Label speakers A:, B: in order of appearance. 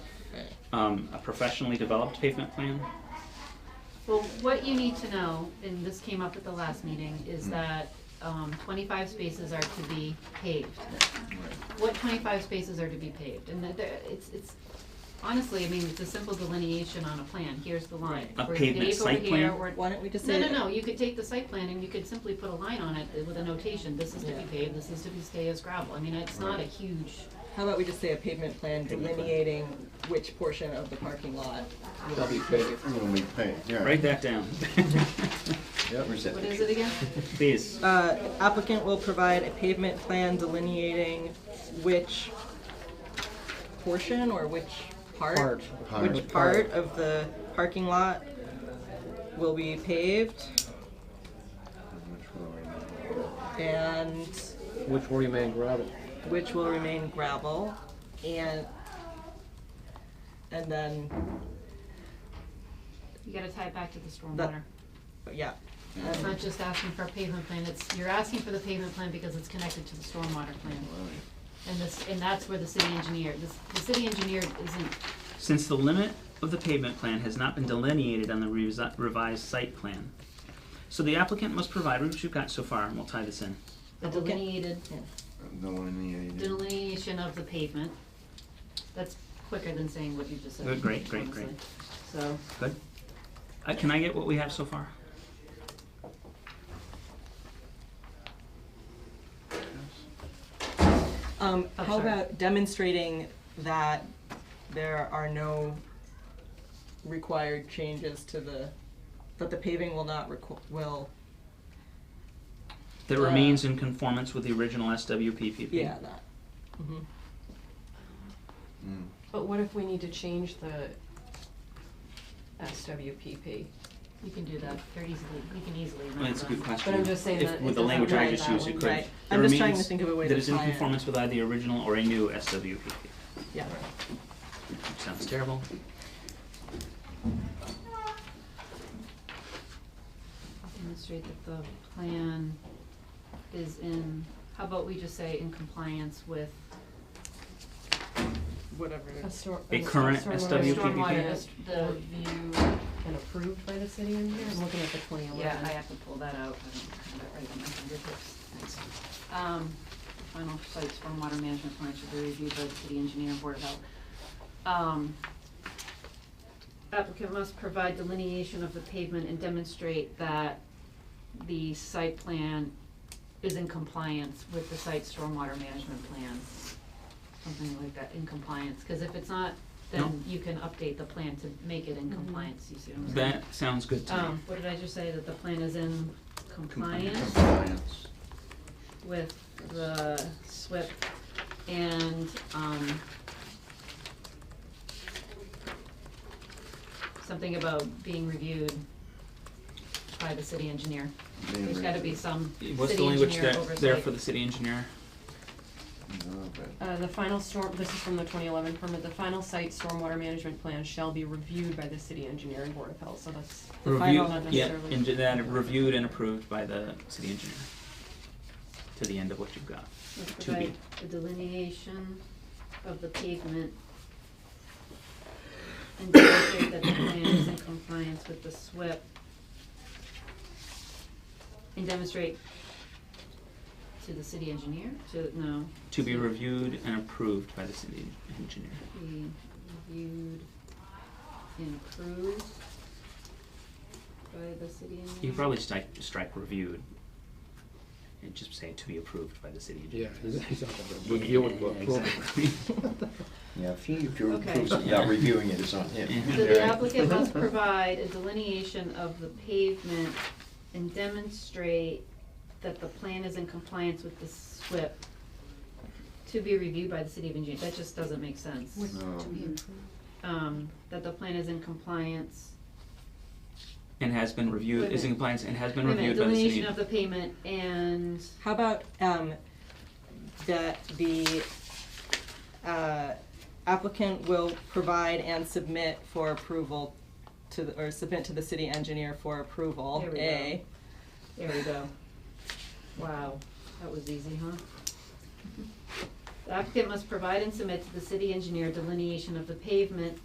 A: um, a professionally developed pavement plan.
B: Well, what you need to know, and this came up at the last meeting, is
A: Mm.
B: that um, twenty-five spaces are to be paved. What twenty-five spaces are to be paved, and that, there- it's, it's, honestly, I mean, it's a simple delineation on a plan, here's the line.
A: A
B: We're
A: pavement
B: paved over
A: site
B: here,
A: plan?
B: we're-
C: Why don't we just
B: No, no,
C: say?
B: no, you could take the site plan and you could simply put a line on it with a notation, this is to be
C: Yeah.
B: paved, this is to be stay as gravel, I mean, it's not a huge,
C: How about we just say a pavement plan
A: Pavement plan.
C: delineating which portion of the parking lot?
D: They'll be paid when we pay, yeah.
A: Write that down.
D: Yep. Where's that
B: what is
D: picture?
B: it again?
A: Please.
C: Uh, applicant will provide a pavement plan delineating which portion or which part?
E: Part.
C: Which part of the parking lot will be paved
D: Which one are we on?
C: and
E: which will remain gravel.
C: which will remain gravel and, and then,
B: You gotta tie it back to the
C: That-
B: stormwater.
C: yeah.
B: It's not just asking for a pavement plan, it's, you're asking for the pavement plan because it's connected to the stormwater plan. And this, and that's where the city engineer, this, the city engineer isn't,
A: Since the limit of the pavement plan has not been delineated on the resi- revised site plan. So the applicant must provide, which you've got so far, and we'll tie this in.
B: the
C: Okay.
B: delineated,
D: The one in the,
B: delineation of the pavement. That's quicker than saying what you just said.
A: Good, great, great, great.
B: honestly. So,
A: Good? Uh, can I get what we have so far?
C: Um,
B: Oh,
C: how
B: sorry.
C: about demonstrating that there are no required changes to the, that the paving will not requ- will,
A: That
C: Uh,
A: remains in conformance with the original SWPPP.
C: yeah, that. Mhm.
D: Hmm.
F: But what if we need to change the SWPP?
B: you can do that, very easily, you can easily.
A: Well, that's a good
B: remember.
A: question.
F: But I'm just saying
A: If-
F: that it
A: With the
F: doesn't
A: language I
F: apply
A: just
F: that
A: used, you
F: one.
A: could.
C: Right.
A: It
C: I'm just trying to
A: remains
C: think of a way
A: That
C: to
A: is in
C: tie it.
A: conformance with either the original or a new SWPP.
C: Yeah,
A: Which Sounds terrible.
B: Demonstrate that the plan is in, how about we just say in compliance with
C: whatever.
F: A stor-
A: A current
F: stormwater-
A: SWPP?
B: stormwater,
F: Yeah.
B: dis- the view
F: And approved by the city engineer, I'm looking at the twenty
B: Yeah, I
F: eleven.
B: have to pull that out, I don't have it right on my fingertips, thanks. Um, final site stormwater management plan should be reviewed by the city engineer and board of health. Um, applicant must provide delineation of the pavement and demonstrate that the site plan is in compliance with the site stormwater management plan. Something like that, in compliance, cause if it's not,
A: No.
B: then you can update the plan to make it in compliance, you see what I'm saying?
A: That sounds good to me.
B: Um, what did I just say, that the plan is in compliance
D: Compliance.
B: with the SWIP and, um, something about being reviewed by the city engineer.
D: Being
B: There's gotta be
D: reviewed.
B: some city
A: What's the language
B: engineer
A: there,
B: oversight.
A: there for the city engineer?
D: No, but
F: Uh, the final storm, this is from the twenty eleven permit, the final site stormwater management plan shall be reviewed by the city engineer and board of health, so that's,
C: The
A: Review-
C: final one
F: not
A: yeah,
F: necessarily.
A: and then reviewed and approved by the city engineer. To the end of what you've got.
B: Let's
A: to be.
B: provide a delineation of the pavement and demonstrate that the plan is in compliance with the SWIP. And demonstrate to the city engineer, to, no,
A: To be reviewed and approved by the city engineer.
B: be reviewed and approved by the city engineer.
A: You could probably strike, strike reviewed. And just say to be approved by the city engineer.
E: Yeah, he's, he's not gonna review it, but approve it.
A: Exactly.
D: Yeah, if you, if you
B: Okay.
D: approve something, not reviewing it, it's on him.
B: So the
D: Right.
B: applicant
A: Mm-hmm.
B: must provide a delineation of the pavement and demonstrate that the plan is in compliance with the SWIP to be reviewed by the city of engineer, that just doesn't make sense.
D: No.
B: Um, that the plan is in compliance,
A: And has been
B: Wait
A: reviewed,
B: a
A: is in
B: minute.
A: compliance and has
B: wait a
A: been
B: minute,
A: reviewed by the city.
B: delineation of the pavement and,
C: How about, um, that the, uh, applicant will provide and submit for approval to, the- or submit to the city engineer for approval,
B: There we go.
C: A.
B: there we go. Wow, that was easy, huh? The applicant must provide and submit to the city engineer delineation of the pavement